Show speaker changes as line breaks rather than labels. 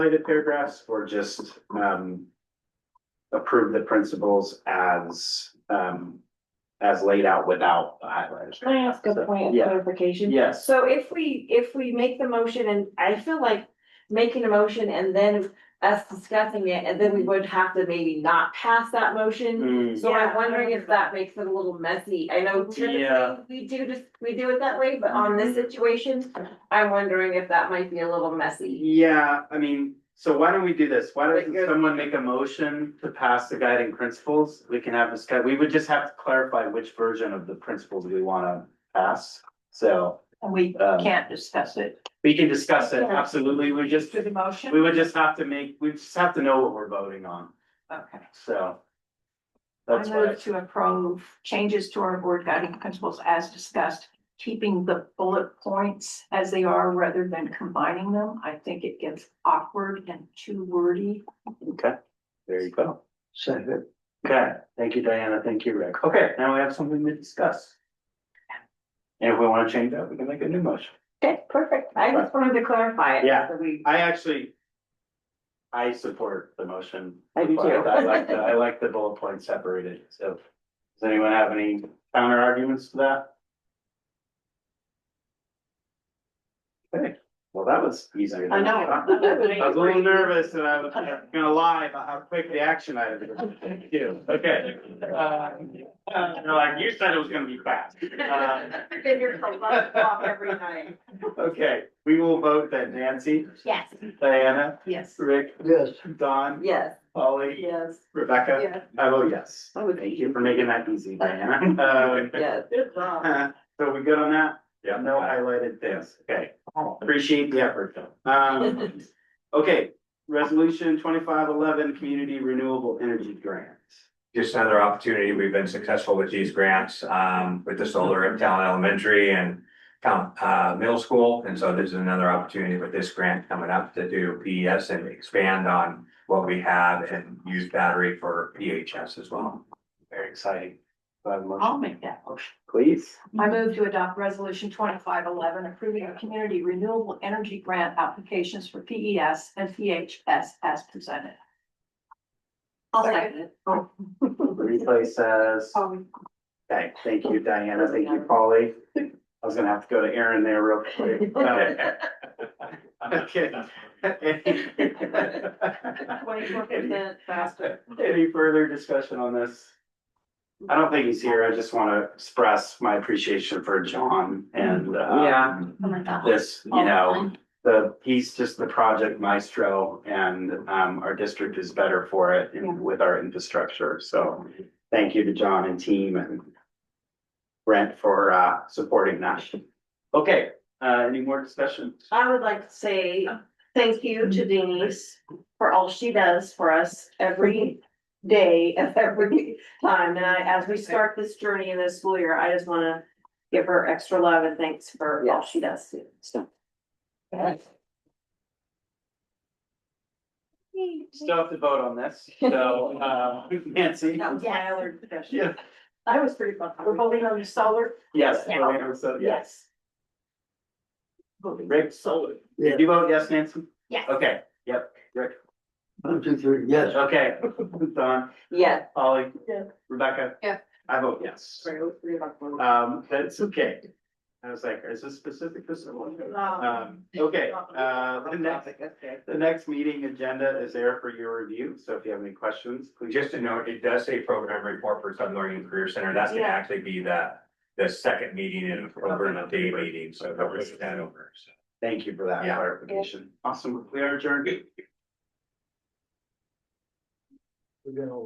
related paragraphs
or just, um, approve the principles as, um, as laid out without the highlighters.
Can I ask a point of
Yeah.
clarification?
Yes.
So if we, if we make the motion and I feel like making a motion and then us discussing it, and then we would have to maybe not pass that motion.
Mm-hmm. Mm,
So
Yeah,
I'm
I
wondering if
remember
that makes it a little messy. I know typically
Yeah.
we do just, we do it that way, but on this situation, I'm wondering if that might be a little messy.
Yeah, I mean, so why don't we do this? Why doesn't
Because-
someone make a motion to pass the guiding principles? We can have this guy, we would just have to clarify which version of the principles we wanna pass. So
We
Um,
can't discuss it
we can discuss it, absolutely. We just,
through the motion?
we would just have to make, we just have to know what we're voting on,
Okay.
so.
I
That's
move
what,
to approve changes to our board guiding principles as discussed, keeping the bullet points as they are rather than combining them. I think it gets awkward and too wordy.
okay, there you go.
Second,
Okay, thank you, Diana. Thank you, Rick. Okay, now we have something to discuss. And if we wanna change that, we can make a new motion.
Okay, perfect. I just wanted to clarify it.
Yeah.
so we-
I actually. I support the motion.
I do too.
I like the, I like the bullet point separated, so. Does anyone have any counter arguments to that? Okay, well, that was easier. than thought. I was a little nervous and I was gonna lie about how quick the action items were. Thank you. Okay. Uh, uh, no, like you said it was gonna be fast. Uh,
Been here for a month, walk every night.
Okay, we will vote then. Nancy,
Yes.
Diana,
Yes.
Rick,
yes,
Don,
Yes.
Polly,
Yes.
Rebecca.
Yeah.
I vote yes.
I would-
Oh, Thank you for making that easy, Diana.
Yes.
Um, So we good on that? Yeah. No highlighted things. Okay, appreciate the effort though. Um, okay, resolution twenty-five eleven, community renewable energy grant.
just another opportunity. We've been successful with these grants, um, with the solar at Town Elementary and Town, uh, Middle School. And so this is another opportunity with this grant coming up to do PES and expand on what we have and use battery for PHS as well.
Very exciting. Do I have a motion?
Oh.
I'll make that motion.
Please.
I move to adopt resolution twenty-five eleven approving our community renewable energy grant applications for PES and PHS as presented. I'll second it.
Replace says.
Oh.
Okay, thank you, Diana. Thank you, Polly. I was gonna have to go to Aaron there real quick. Uh, Okay.
Twenty-four
Uh,
percent
oh
faster.
Any further discussion on this? I don't think he's here. I just want to express my appreciation for John and uh,
Yeah.
Oh my God.
this, you know, the, he's just the project maestro and um, our district is better for it and with our infrastructure. So thank you to John and team and Brent for uh, supporting that. Okay, uh, any more discussion?
I would like to say thank you to Denise for all she does for us every day of every time. And I, as we start this journey in this school year, I just wanna give her extra love and thanks for all she does. So,
Still have to vote on this, so uh, Nancy?
That was my other discussion.
Yeah.
That was pretty fun. We're voting on the solar.
Yes, Joanna, so yes.
Voting.
Rick,
Solar.
did you vote yes, Nancy?
Yes.
Okay, yep, Rick,
one, two, three, yes.
okay, Don,
Yes.
Ollie.
Yeah.
Rebecca.
Yeah.
I vote yes. Um, that's okay. I was like, is this specific to someone? Um, okay, uh, the next, the next meeting agenda is there for your review, so if you have any questions, please.
Just to note, it does say program report for Southern Oregon Career Center. That's gonna
Yeah.
actually be the, the second meeting in October and a day meeting. So that was that over. So
Thank you for that
Yeah.
clarification. Awesome, we are adjourned.
We're gonna